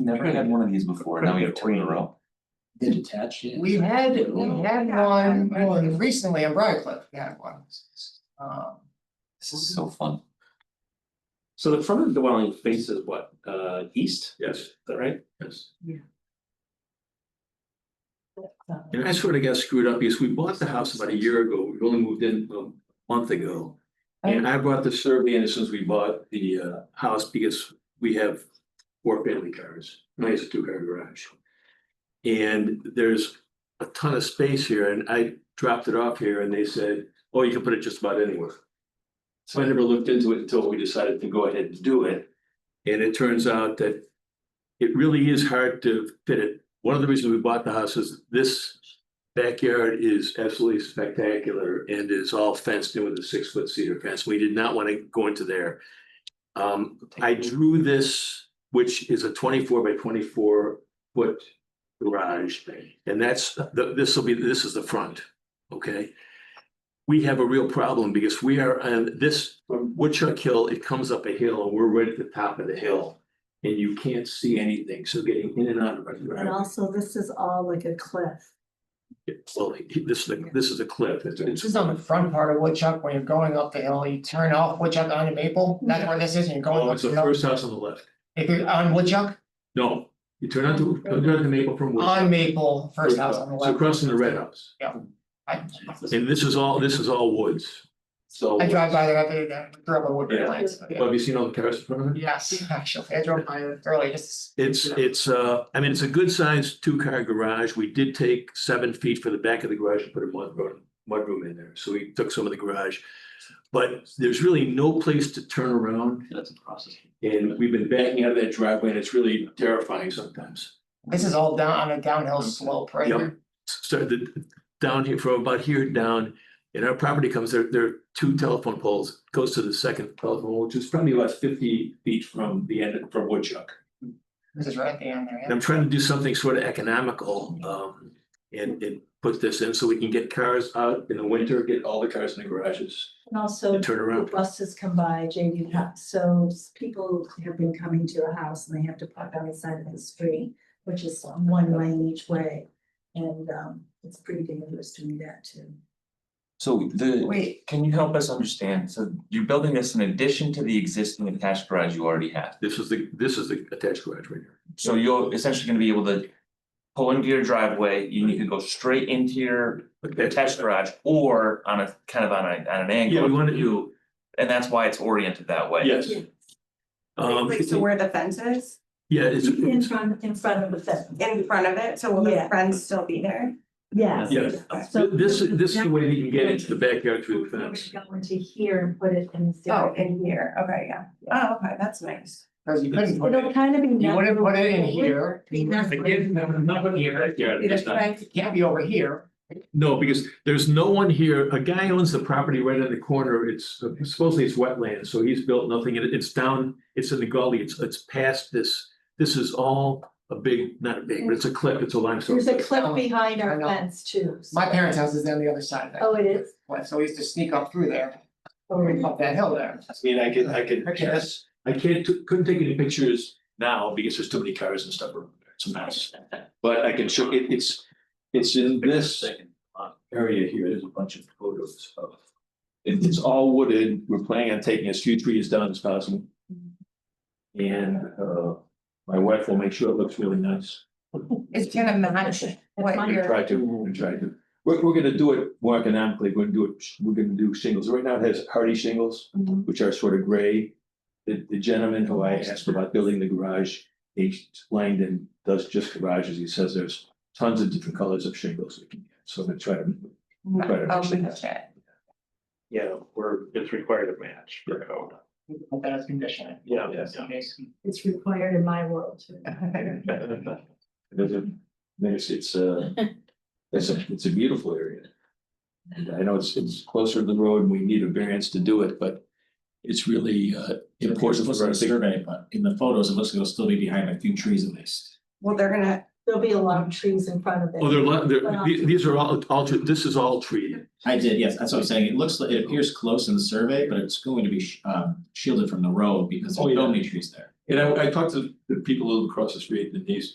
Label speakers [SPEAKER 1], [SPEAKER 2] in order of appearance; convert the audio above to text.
[SPEAKER 1] Never had one of these before, now we have two in a row.
[SPEAKER 2] The detached, yeah.
[SPEAKER 3] We had, we had
[SPEAKER 4] Yeah.
[SPEAKER 3] one, well, and recently in Briarcliff, we had one. Um,
[SPEAKER 1] This is so fun.
[SPEAKER 5] So the front of the dwelling faces what, uh, east,
[SPEAKER 6] Yes,
[SPEAKER 5] is that right?
[SPEAKER 6] yes.
[SPEAKER 4] Uh,
[SPEAKER 6] And I sort of got screwed up because we bought the house about a year ago. We only moved in a month ago.
[SPEAKER 4] Oh.
[SPEAKER 6] And I brought the survey in since we bought the uh house because we have four family cars, nice two car garage. And there's a ton of space here and I dropped it off here and they said, oh, you can put it just about anywhere. So I never looked into it until we decided to go ahead and do it. And it turns out that it really is hard to fit it. One of the reasons we bought the house is this backyard is absolutely spectacular and is all fenced in with a six foot cedar fence. We did not want to go into there. Um, I drew this, which is a twenty four by twenty four foot garage. And that's, the this will be, this is the front, okay? We have a real problem because we are on this from Woodchuck Hill, it comes up a hill and we're right at the top of the hill. And you can't see anything, so getting in and out of our
[SPEAKER 4] And
[SPEAKER 6] driveway.
[SPEAKER 4] also, this is all like a cliff.
[SPEAKER 6] Well, this, is a- this is a cliff. It's-
[SPEAKER 3] This is on the front part of Woodchuck, when you're going up the hill, you turn off Woodchuck onto Maple, that's where this is, and you're going
[SPEAKER 6] Oh,
[SPEAKER 3] up
[SPEAKER 6] it's
[SPEAKER 3] the
[SPEAKER 6] the
[SPEAKER 3] hill.
[SPEAKER 6] first house on the left.
[SPEAKER 3] If you're on Woodchuck,
[SPEAKER 6] No, you turn out to, turn out to Maple from. Woodchuck.
[SPEAKER 3] on Maple, Oh, first house on the
[SPEAKER 6] It's
[SPEAKER 3] left.
[SPEAKER 6] across from the red house.
[SPEAKER 3] I
[SPEAKER 6] And this is all, this is all woods. So.
[SPEAKER 3] I drive by there every day, I grew up in Woodbury
[SPEAKER 6] Yeah.
[SPEAKER 3] Heights, but yeah.
[SPEAKER 6] Have you seen all the cars in front of it?
[SPEAKER 3] Yes, actually, I drove by it early, just.
[SPEAKER 6] It's, it's, uh, I mean, it's a good sized two car garage. We did take seven feet for the back of the garage and put a mud room, mud room in there. So we took some of the garage. But there's really no place to turn around
[SPEAKER 1] That's a process.
[SPEAKER 6] and we've been backing out of that driveway and it's really terrifying sometimes.
[SPEAKER 3] This is all down on a downhill slope, right?
[SPEAKER 6] Yep.
[SPEAKER 3] here.
[SPEAKER 6] started down here from about here down. And our property comes, there, there are two telephone poles, goes to the second telephone, which is probably about fifty feet from the end, from Woodchuck.
[SPEAKER 3] This is right at the end there,
[SPEAKER 6] And
[SPEAKER 3] yeah.
[SPEAKER 6] I'm trying to do something sort of economical, um, and, and put this in so we can get cars out in the winter, get all the cars in the garages
[SPEAKER 4] And also,
[SPEAKER 6] and turn
[SPEAKER 4] the
[SPEAKER 6] around.
[SPEAKER 4] buses come by, JD, ha- so s- people have been coming to your house and they have to park on the side of the street, which is one lane each way. And um, it's pretty dangerous doing that too.
[SPEAKER 1] So the,
[SPEAKER 3] Wait,
[SPEAKER 1] can you help us understand? So you're building this in addition to the existing attached garage you already have.
[SPEAKER 6] This is the, this is the attached garage right here.
[SPEAKER 1] So you're essentially gonna be able to pull into your driveway, you need to go straight into your attached garage or on a, kind of on a, on an angle.
[SPEAKER 6] Yeah, we wanna do,
[SPEAKER 1] And that's why it's oriented that way.
[SPEAKER 6] yes.
[SPEAKER 4] Yeah.
[SPEAKER 6] Um,
[SPEAKER 7] Like, so where the fence is,
[SPEAKER 6] yeah, it's,
[SPEAKER 4] In front, in front of the fence,
[SPEAKER 7] in front of it, so will the
[SPEAKER 4] Yeah.
[SPEAKER 7] fence still be there?
[SPEAKER 4] yes.
[SPEAKER 6] yes.
[SPEAKER 4] So
[SPEAKER 6] This, this is the way that you can get into the backyard through the
[SPEAKER 4] We're
[SPEAKER 6] fence.
[SPEAKER 4] going to here and put it in. the-
[SPEAKER 7] Oh, in here, okay, yeah, oh, okay, that's nice.
[SPEAKER 3] cause you couldn't put
[SPEAKER 4] It'll
[SPEAKER 3] it,
[SPEAKER 4] kind of be.
[SPEAKER 3] you wouldn't put it in here,
[SPEAKER 4] Be nothing.
[SPEAKER 3] it can't be over here.
[SPEAKER 6] No, because there's no one here. A guy owns the property right in the corner. It's supposedly it's wetland, so he's built nothing. It- It's down, it's in the gully. It's, it's past this. This is all a big, not a big, but it's a cliff. It's a limestone.
[SPEAKER 4] There's a
[SPEAKER 6] cliff.
[SPEAKER 4] cliff behind
[SPEAKER 3] I
[SPEAKER 4] our
[SPEAKER 3] know.
[SPEAKER 4] fence too. so-
[SPEAKER 3] My parents' house is on the other side of that.
[SPEAKER 4] Oh, it is?
[SPEAKER 3] Well, so we used to sneak up through there,
[SPEAKER 4] Oh, really?
[SPEAKER 3] up that hill there.
[SPEAKER 6] I mean, I could, I could,
[SPEAKER 3] Okay.
[SPEAKER 6] yes, I can't, couldn't take any pictures now because there's too many cars and stuff around there. It's a mess. But I can show, it, it's, it's in this Uh, area here. There's a bunch of photos of. It, it's all wooded. We're planning on taking as few trees down as possible. And, uh, my wife will make sure it looks really nice.
[SPEAKER 3] It's gonna match
[SPEAKER 4] That's
[SPEAKER 3] what
[SPEAKER 4] mine.
[SPEAKER 3] you're.
[SPEAKER 6] Try to, we're gonna try to. We're, we're gonna do it more economically. We're gonna do it, we're gonna do shingles. Right now it has hardy shingles
[SPEAKER 4] Mhm.
[SPEAKER 6] which are sort of gray. The, the gentleman who I asked about building the garage, H. Langdon, does just garages. He says there's tons of different colors of shingles we can get. So I'm gonna try to. try to
[SPEAKER 7] Oh,
[SPEAKER 6] match that.
[SPEAKER 7] okay.
[SPEAKER 5] Yeah, we're, it's required to match.
[SPEAKER 6] Yeah.
[SPEAKER 5] code.
[SPEAKER 3] Put that as conditioning.
[SPEAKER 5] Yeah.
[SPEAKER 6] Yes.
[SPEAKER 4] It's required in my world too.
[SPEAKER 6] There's a- there's- it's a, it's a, it's a beautiful area. And I know it's, it's closer to the road and we need a variance to do it, but it's really uh, important for us. to-
[SPEAKER 2] but in the photos, it looks like it'll still be behind a few trees at least.
[SPEAKER 7] Well, they're gonna,
[SPEAKER 4] There'll be a lot of trees in front of it. um,
[SPEAKER 6] Oh, they're, li- they're, the- these are all, all, tree- this is all tree.
[SPEAKER 2] I did, yes, that's what I'm saying. It looks, like it appears close in the survey, but it's going to be sh- um shielded from the road because
[SPEAKER 6] Oh,
[SPEAKER 2] there's
[SPEAKER 6] yeah.
[SPEAKER 2] so many trees there.
[SPEAKER 6] And I, I talked to the people who live across the street, Denise,